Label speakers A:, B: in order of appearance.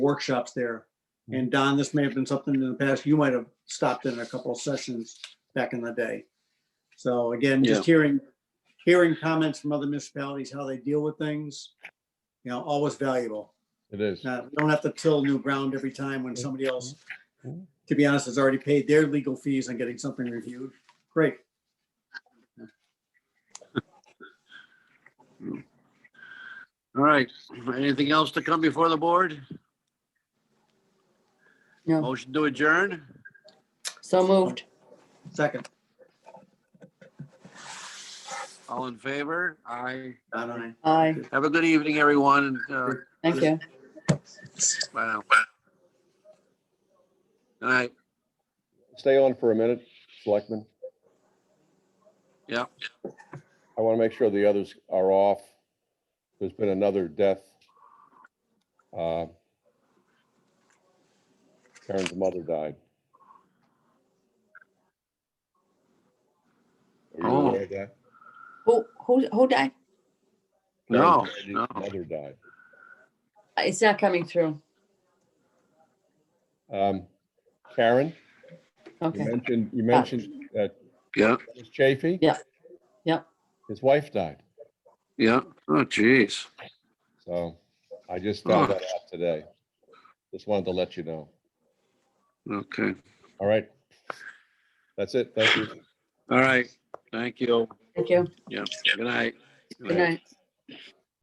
A: workshops there. And Don, this may have been something in the past, you might have stopped in a couple of sessions back in the day. So again, just hearing, hearing comments from other municipalities, how they deal with things, you know, always valuable.
B: It is.
A: Now, we don't have to till new ground every time when somebody else, to be honest, has already paid their legal fees on getting something reviewed. Great.
C: All right, anything else to come before the board?
D: No.
C: Motion to adjourn?
D: So moved.
A: Second,
C: All in favor? Aye.
A: Don and I.
D: Aye.
C: Have a good evening, everyone. Uh,
D: Thank you.
C: Bye now. Good night.
B: Stay on for a minute, Selectman.
C: Yeah.
B: I want to make sure the others are off. There's been another death. Uh, Karen's mother died. Are
C: Oh.
B: you aware of that?
D: Who, who, who died?
C: No,
B: Karen's
C: no.
B: Mother died.
D: It's not coming through.
B: Um, Karen, you
D: Okay.
B: mentioned, you mentioned uh,
C: Yeah,
B: Dennis Chafee?
D: Yeah. Yeah.
B: His wife died,
C: yeah. Oh, geez.
B: so I just found
C: Oh.
B: that out today. Just wanted to let you know.
C: Okay.
B: All right. That's it. Thank you.
C: All right. Thank you.
D: Thank you.
C: Yeah. Good night.
D: Good night.